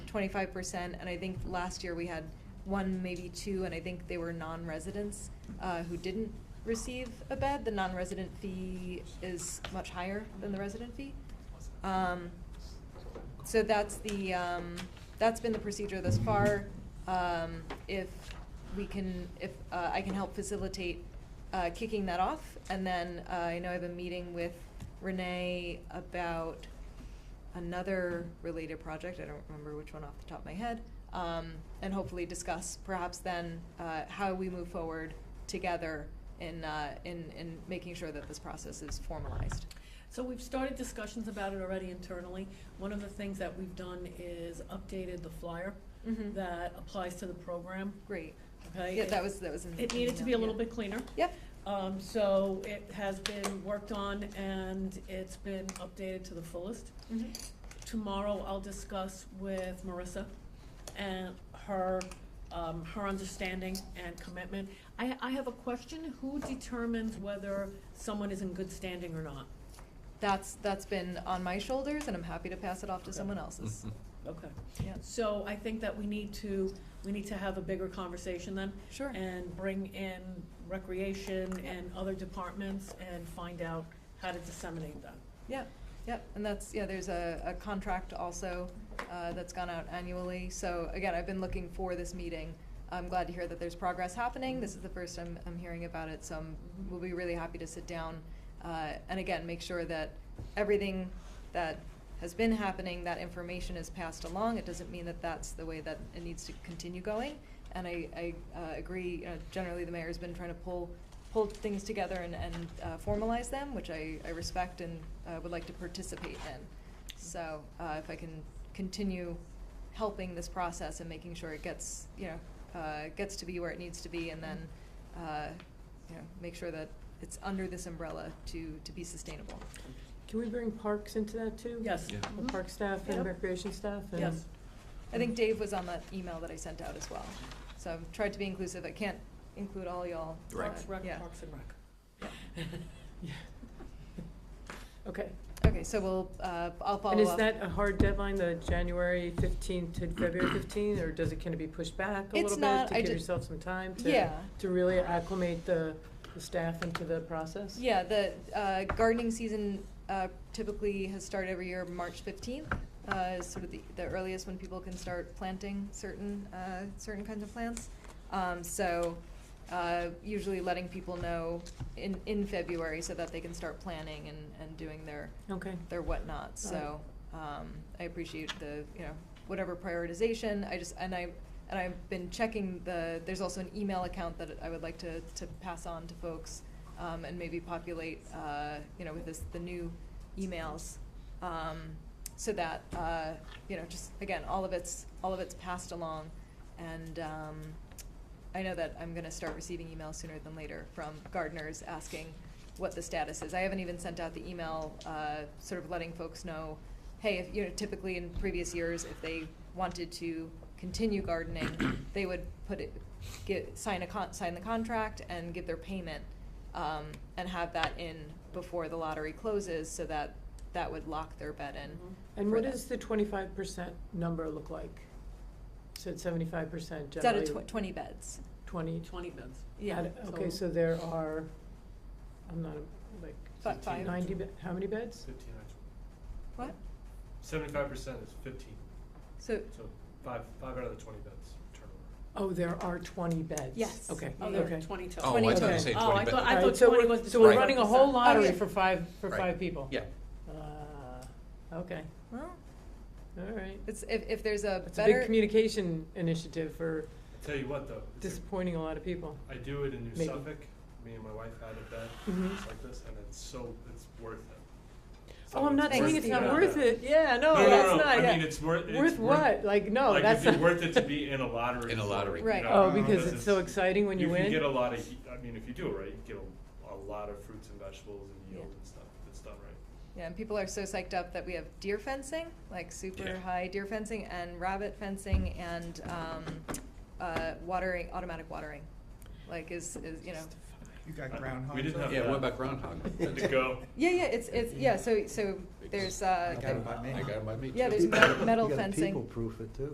twenty-five percent, and I think last year we had one, maybe two, and I think they were non-residents, uh, who didn't receive a bed. The non-resident fee is much higher than the resident fee. Um, so that's the, um, that's been the procedure thus far. Um, if we can, if, uh, I can help facilitate, uh, kicking that off. And then, uh, I know I have a meeting with Renee about another related project. I don't remember which one off the top of my head. Um, and hopefully discuss perhaps then, uh, how we move forward together in, uh, in, in making sure that this process is formalized. So we've started discussions about it already internally. One of the things that we've done is updated the flyer Mhm. that applies to the program, Great. okay? Yeah, that was, that was in. It needed to be a little bit cleaner. Yep. Um, so it has been worked on and it's been updated to the fullest. Tomorrow I'll discuss with Marissa and her, um, her understanding and commitment. I, I have a question, who determines whether someone is in good standing or not? That's, that's been on my shoulders and I'm happy to pass it off to someone else's. Okay. Yeah. So I think that we need to, we need to have a bigger conversation then. Sure. And bring in recreation and other departments and find out how to disseminate that. Yep, yep. And that's, yeah, there's a, a contract also, uh, that's gone out annually. So again, I've been looking for this meeting. I'm glad to hear that there's progress happening. This is the first I'm, I'm hearing about it, so I'm, will be really happy to sit down. Uh, and again, make sure that everything that has been happening, that information is passed along. It doesn't mean that that's the way that it needs to continue going. And I, I uh, agree, you know, generally the mayor's been trying to pull, pull things together and, and uh, formalize them, which I, I respect and uh, would like to participate in. So uh, if I can continue helping this process and making sure it gets, you know, uh, gets to be where it needs to be and then, uh, you know, make sure that it's under this umbrella to, to be sustainable. Can we bring parks into that too? Yes. Yeah. The park Mm-hmm. staff and Yep. recreation staff and. Yes. I think Dave was on that email that I sent out as well. So I've tried to be inclusive. I can't include all y'all. Right. but Parks, Rec, yeah. Parks and Rec. Okay. Okay, so we'll, uh, I'll follow up. And is that a hard deadline, the January fifteenth to February fifteenth, or does it, can it be pushed back a It's little not- I bit to give ju- yourself some time to? Yeah. To really acclimate the, the staff into the process? Yeah, the uh, gardening season uh, typically has started every year March 15th, uh, is sort of the, the earliest when people can start planting certain, uh, certain kinds of plants. Um, So uh, usually letting people know in, in February so that they can start planning and, and doing their, Okay. their whatnot. So um, I appreciate the, you know, whatever prioritization. I just, and I, and I've been checking the, there's also an email account that I would like to, to pass on to folks um, and maybe populate, uh, you know, with this, the new emails. um, So that, uh, you know, just, again, all of it's, all of it's passed along. And um, I know that I'm gonna start receiving emails sooner than later from gardeners asking what the status is. I haven't even sent out the email, uh, sort of letting folks know, hey, if, you know, typically in previous years, if they wanted to continue gardening, they would put it, get, sign a con, sign the contract and give their payment, um, and have that in before the lottery closes, so that, that would lock their bed in. Mhm. And for what them. does the twenty-five percent number look like? So it's seventy-five percent It's out generally? of tw- twenty beds. Twenty? Twenty bids. Yeah. Out- Okay, so there are, I'm not, like, Fi- Five. ninety, be- how many beds? Fifteen actually. What? Seventy-five percent is fifteen, So, so five, five out of the twenty beds turnover. Oh, there are twenty beds? Yes. Okay, Oh, okay. there are twenty total. Oh, I thought Okay. you said Oh, I twenty, thought, but, I All thought right, so twenty we're- was the Oh, So we're Right. running a whole 25%. lottery Okay. for five, for Right. five people? yeah, Uh, okay, well, all right. it's, if, if there's a It's a better. big communication initiative for I tell you what though, it's a- disappointing a lot of people. I do it in New Maybe. Suffolk, me and my wife had a bed Mhm. just like this, and it's so, it's worth it. So Oh, I'm not Thanks. saying it's not yeah. worth it, yeah, no, No, no, that's no, not, I yeah. mean, it's worth, it's Worth what? Like, no, like, that's it'd not. be worth it to be in a lottery. In a for it, lottery. you Right. know, Oh, because it's so it's- exciting when you win? can get a lot of, I mean, if you do it right, you get a, a lot of fruits and vegetables and yield Yeah. and stuff, if it's done right. Yeah, and people are so psyched up that we have deer fencing, like super Yeah. high deer fencing, and rabbit fencing, and um, uh, watering, automatic watering. Like is, is you know, You got I- groundhog. we didn't have yeah, what that. about groundhog? To go. yeah, yeah, it's it's yeah. So so there's uh, I got it by me. I got it by me too. yeah, there's metal, metal fencing. people proof it too.